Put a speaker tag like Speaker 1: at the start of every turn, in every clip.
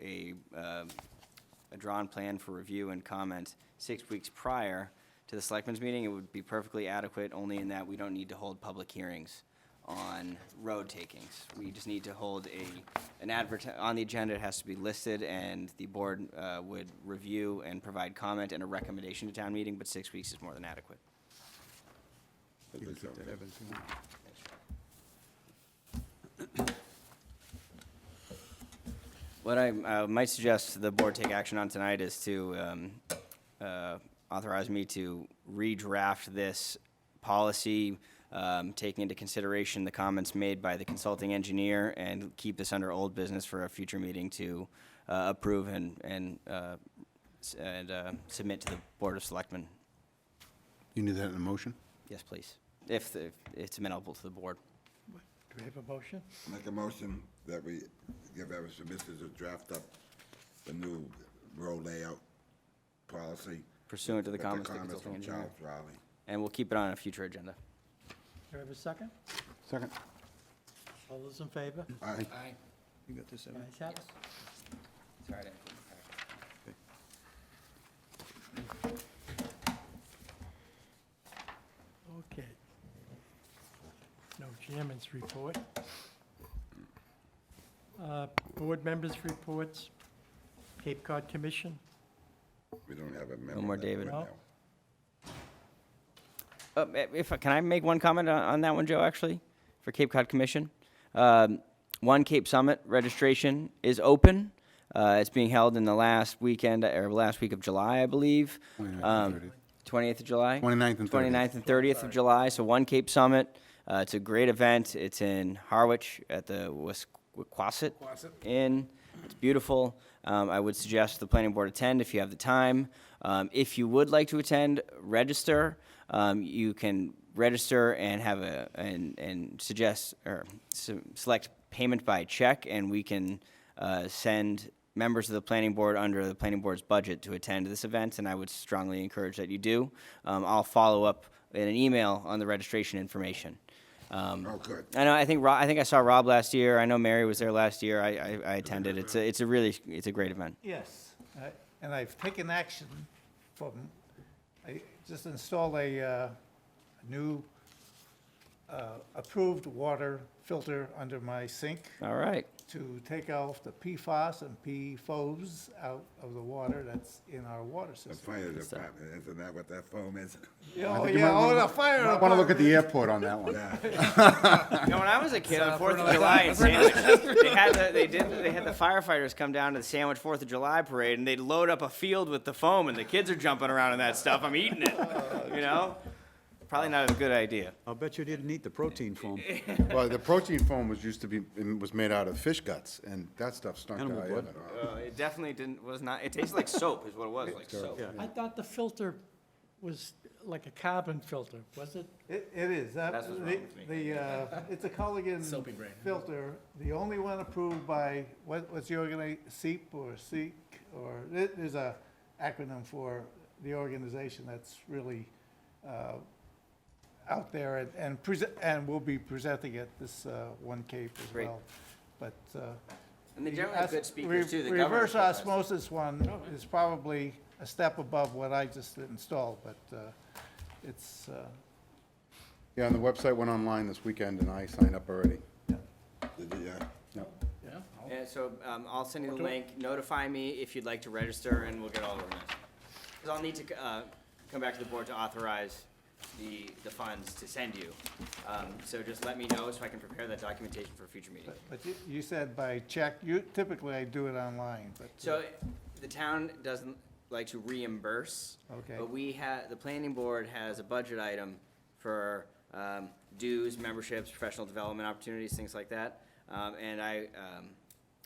Speaker 1: a, uh, a drawn plan for review and comment six weeks prior to the selectmen's meeting, it would be perfectly adequate, only in that we don't need to hold public hearings on road takings. We just need to hold a, an advert, on the agenda, it has to be listed, and the board uh, would review and provide comment and a recommendation to town meeting, but six weeks is more than adequate.
Speaker 2: You can keep that, Evans.
Speaker 1: What I uh, might suggest the board take action on tonight is to um, uh, authorize me to redraft this policy, um, taking into consideration the comments made by the consulting engineer, and keep this under old business for a future meeting to uh, approve and, and, uh, s- and uh, submit to the Board of Selectmen.
Speaker 2: You need that in a motion?
Speaker 1: Yes, please, if the- it's amenable to the board.
Speaker 3: Do we have a motion?
Speaker 4: Make a motion that we give Evans Mrs. to draft up the new road layout policy.
Speaker 1: Pursuant to the
Speaker 4: with
Speaker 1: comments of the consulting
Speaker 4: from
Speaker 1: engineer.
Speaker 4: Charles Rowley.
Speaker 1: And we'll keep it on a future agenda.
Speaker 3: Do we have a second?
Speaker 2: Second.
Speaker 3: All those in favor?
Speaker 4: Aye.
Speaker 2: You got this,
Speaker 3: Ayes have it.
Speaker 1: Sorry,
Speaker 3: Okay. No chairman's report. Uh, Board members' reports, Cape Cod Commission,
Speaker 4: We don't have a member.
Speaker 1: more
Speaker 4: that
Speaker 1: David.
Speaker 4: right
Speaker 3: No.
Speaker 4: now.
Speaker 1: Uh, If, can I make one comment on, on that one, Joe, actually, for Cape Cod Commission? Um, One Cape Summit registration is open. Uh, it's being held in the last weekend, or last week of July, I believe.
Speaker 2: 29th and
Speaker 1: Um,
Speaker 2: 30th.
Speaker 1: 28th of July?
Speaker 2: 29th and 30th.
Speaker 1: 29th and 30th of July, so One Cape Summit. Uh, it's a great event. It's in Harwich at the Wisquasset Inn. It's beautiful. Um, I would suggest the planning board attend if you have the time. Um, if you would like to attend, register. Um, you can register and have a and and suggest or se- select payment by check, and we can uh, send members of the planning board under the planning board's budget to attend this event, and I would strongly encourage that you do. Um, I'll follow up in an email on the registration information. Um,
Speaker 4: Oh, good.
Speaker 1: I know. I think Rob, I think I saw Rob last year. I know Mary was there last year. I, I, I attended. It's a it's a really it's a great event.
Speaker 5: Yes, I- Uh, and I've taken action from, I just installed a uh, new uh, approved water filter under my sink
Speaker 1: All right.
Speaker 5: to take off the PFAS and PFOs out of the water that's in our water
Speaker 4: The
Speaker 5: system.
Speaker 4: fire
Speaker 1: uh,
Speaker 4: department, isn't that what that foam is?
Speaker 5: Oh,
Speaker 2: think you might
Speaker 5: yeah, oh,
Speaker 2: wanna-
Speaker 5: the fire
Speaker 2: I want to look at
Speaker 5: department.
Speaker 2: the airport on that one.
Speaker 4: Yeah.
Speaker 1: You know, when I was a kid, on Fourth of July in Sandwich, they had the, they did they had the firefighters come down to the Sandwich Fourth of July parade, and they'd load up a field with the foam, and the kids are jumping around in that stuff. I'm eating it. You know, probably not a good idea.
Speaker 6: I'll bet you didn't eat the protein foam.
Speaker 2: Well, the protein foam was used to be, and was made out of fish guts, and that stuff stunk.
Speaker 6: Animal
Speaker 2: out.
Speaker 6: blood.
Speaker 1: Uh, it definitely didn't was not. It tasted like soap, is what it was like soap.
Speaker 3: I thought the filter was like a carbon filter, was it?
Speaker 5: It, it is, that,
Speaker 1: That's what's wrong
Speaker 5: the,
Speaker 1: with me.
Speaker 5: the, uh, it's a Culligan filter, the only one approved by, what, what's the organization, SEEP or SEEK? Or, there- there's a acronym for the organization that's really, uh, out there and, and present, and will be presenting at this, uh, One Cape as
Speaker 1: Great.
Speaker 5: well. But, uh,
Speaker 1: And they
Speaker 5: the
Speaker 1: generally have
Speaker 5: os-
Speaker 1: good speakers
Speaker 5: re-
Speaker 1: too. The Oh, governor's
Speaker 5: Reverse
Speaker 1: office.
Speaker 5: osmosis one is probably a step above what I just installed, but uh, it's, uh,
Speaker 2: Yeah, and the website went online this weekend, and I signed up already.
Speaker 4: Did you, uh,
Speaker 1: Yeah, so um, I'll send you the link. Notify me if you'd like to register, and we'll get all organized. Because I'll need to uh, come back to the board to authorize the, the funds to send you. Um, So just let me know so I can prepare that documentation for a future meeting.
Speaker 5: but but you- you said by check, you, typically I do it online, but. uh,
Speaker 1: So the town doesn't like to reimburse.
Speaker 5: Okay.
Speaker 1: But we have, the planning board has a budget item for um, dues, memberships, professional development opportunities, things like that. Um, And I, um,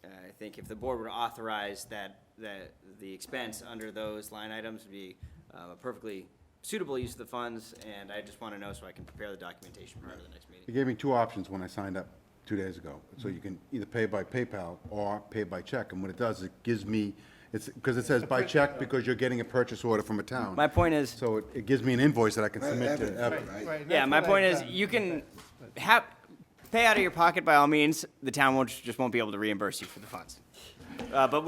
Speaker 1: I think if the board were to authorize that, that the expense under those line items would be uh, a perfectly suitable use of the funds, and I just want to know so I can prepare the documentation prior to the next
Speaker 2: They
Speaker 1: meeting. Mm-hmm.
Speaker 2: gave me two options when I signed up two days ago. So you can either pay by PayPal or pay by check, and what it does, it gives me, it's, because it says by check because you're getting a purchase order from a town.
Speaker 1: My point is.
Speaker 2: So it, it gives me an invoice that I can
Speaker 4: Right,
Speaker 2: submit
Speaker 4: Evans,
Speaker 2: to Evan.
Speaker 4: right?
Speaker 5: right,
Speaker 1: Yeah,
Speaker 5: that's
Speaker 1: my
Speaker 5: what
Speaker 1: point
Speaker 5: I've
Speaker 1: is,
Speaker 5: done.
Speaker 1: you can have, pay out of your pocket by all means, the town won't, just won't be able to reimburse you for the funds. Uh, but